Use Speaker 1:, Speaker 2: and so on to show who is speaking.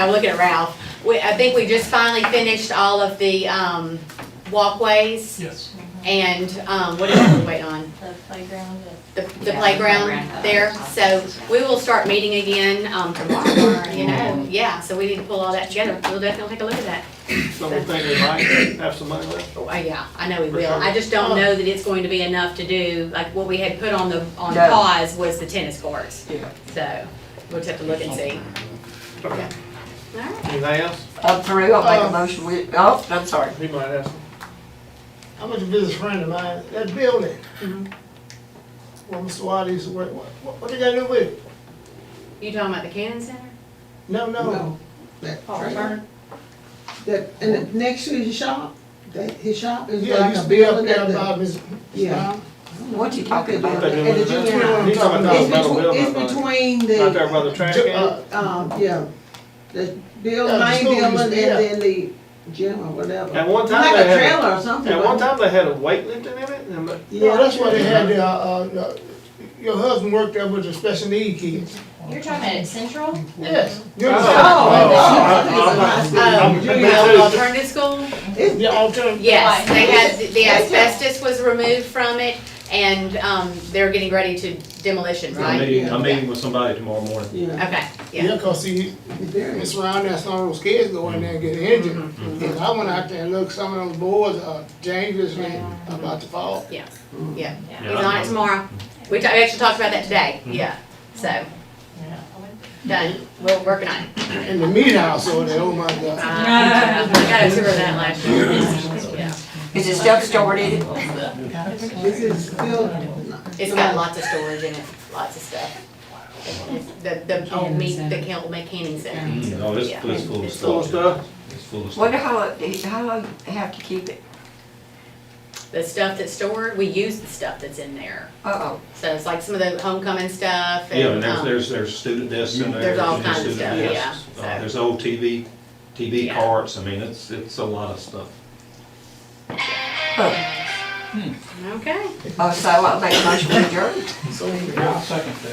Speaker 1: I'm looking at Ralph. We, I think we just finally finished all of the, um, walkways
Speaker 2: Yes.
Speaker 1: and, um, what else are we waiting on?
Speaker 3: The playground at
Speaker 1: The, the
Speaker 3: Yeah,
Speaker 1: playground
Speaker 3: playground.
Speaker 1: there. So we will start meeting again, um, tomorrow, you know? Yeah, so we need to pull all that together. We'll definitely take a look at that.
Speaker 2: So we think we might have some money left?
Speaker 1: Oh, yeah, I know we
Speaker 2: For
Speaker 1: will.
Speaker 2: sure.
Speaker 1: I just don't know that it's going to be enough to do, like, what we had put on the, on
Speaker 4: No.
Speaker 1: pause was the tennis courts.
Speaker 4: Yeah.
Speaker 1: So we'll just have to look and see.
Speaker 2: Okay.
Speaker 1: All right,
Speaker 2: Anything else?
Speaker 4: Up for real, I'll make a motion, we, oh, I'm sorry.
Speaker 2: He might ask.
Speaker 5: I was a business friend of mine, that building. Where Mr. Wiley used to work, what, what- what did that do with it?
Speaker 1: you talking about the Cannon Center?
Speaker 5: No, no,
Speaker 6: No, that trailer, that, and it- next to his shop, that, his shop is
Speaker 5: yeah, it
Speaker 6: like
Speaker 5: used
Speaker 6: a
Speaker 5: to be up
Speaker 6: building
Speaker 5: there
Speaker 6: that,
Speaker 5: by
Speaker 6: the-
Speaker 5: Ms.
Speaker 6: yeah.
Speaker 4: What you talking about?
Speaker 6: And the
Speaker 2: He's
Speaker 6: junior high.
Speaker 2: talking about the
Speaker 6: It's
Speaker 2: metal
Speaker 6: between,
Speaker 2: building, I
Speaker 6: it's
Speaker 2: think.
Speaker 6: between
Speaker 2: Not there by
Speaker 6: the,
Speaker 2: the trash
Speaker 5: Ju-
Speaker 2: can?
Speaker 5: uh,
Speaker 6: um, yeah, the
Speaker 5: Yeah,
Speaker 6: bill,
Speaker 5: the
Speaker 6: main
Speaker 5: school used
Speaker 6: building
Speaker 5: to
Speaker 6: and
Speaker 5: be there.
Speaker 6: then the gym or whatever.
Speaker 2: At one time
Speaker 6: Like
Speaker 2: they
Speaker 6: a
Speaker 2: had,
Speaker 6: trailer or something.
Speaker 2: at one
Speaker 6: wasn't
Speaker 2: time they had a weightlifting in it, and but-
Speaker 6: it?
Speaker 5: Yeah, that's
Speaker 6: Yeah.
Speaker 5: why they had the, uh, uh, the- your husband worked there with the special need kids.
Speaker 3: You're talking about at Central?
Speaker 5: Yes. you
Speaker 2: Oh,
Speaker 5: understand?
Speaker 2: oh,
Speaker 1: Oh,
Speaker 2: I'm- I'm-
Speaker 1: the alternative school?
Speaker 5: The alternative.
Speaker 1: Yes,
Speaker 3: Right.
Speaker 1: they had, the asbestos was removed from it and, um, they're getting ready to demolition,
Speaker 7: I'm
Speaker 1: right?
Speaker 7: meeting, I'm meeting with somebody tomorrow morning.
Speaker 6: Yeah.
Speaker 1: Okay, yeah.
Speaker 5: Yeah, cause see,
Speaker 6: It's very-
Speaker 5: it's around there, some of those kids go in there and get injured. And I went out there and looked, some of those boards are dangerously about to fall.
Speaker 1: Yeah, yeah.
Speaker 3: Yeah.
Speaker 1: He's on it tomorrow. We ta- we actually talked about that today, yeah. So, done. We're working on it.
Speaker 5: In the meat house over there, oh my God.
Speaker 1: Uh, I got a tour of that last year. Yeah.
Speaker 4: Is it self-started?
Speaker 6: This is still.
Speaker 1: It's got lots of storage in it, lots of stuff. The, the old meat, the Kel- McKinney Center.
Speaker 7: No, it's,
Speaker 1: Yeah.
Speaker 7: it's full of
Speaker 2: Full of
Speaker 7: stuff.
Speaker 2: stuff?
Speaker 7: It's full of
Speaker 4: Wonder
Speaker 7: stuff.
Speaker 4: how, it- how long they have to keep it?
Speaker 1: The stuff that's stored, we use the stuff that's in there.
Speaker 4: Uh-oh,
Speaker 1: So it's like some of the homecoming stuff and.
Speaker 7: Yeah, and there's,
Speaker 1: um,
Speaker 7: there's, there's student desks in there.
Speaker 1: There's all
Speaker 7: student
Speaker 1: kinds of
Speaker 7: student
Speaker 1: stuff,
Speaker 7: desks.
Speaker 1: yeah,
Speaker 7: Uh,
Speaker 1: so.
Speaker 7: There's old TV, TV
Speaker 1: Yeah.
Speaker 7: carts, I mean, it's, it's a lot of stuff.
Speaker 4: oh,
Speaker 1: Okay. um,
Speaker 4: oh, so I'll make a motion, we adjourn.
Speaker 5: So,